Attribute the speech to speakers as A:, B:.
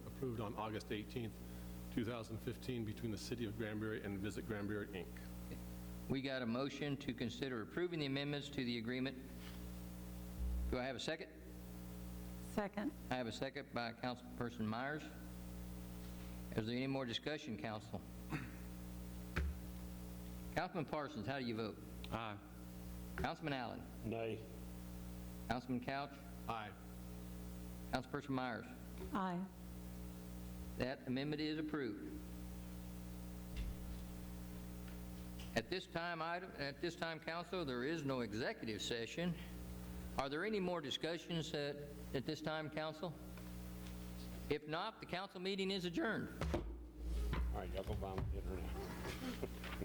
A: approved on August 18th, 2015, between the City of Granbury and Visit Granbury, Inc.
B: We got a motion to consider approving the amendments to the agreement. Do I have a second?
C: Second.
B: I have a second by Councilperson Myers. Is there any more discussion, council? Councilman Parsons, how do you vote?
D: Aye.
B: Councilman Allen?
E: Nay.
B: Councilman Couch?
A: Aye.
B: Councilperson Myers?
C: Aye.
B: That amendment is approved. At this time, item, at this time, council, there is no executive session. Are there any more discussions at, at this time, council? If not, the council meeting is adjourned.
E: All right, y'all go buy my dinner now.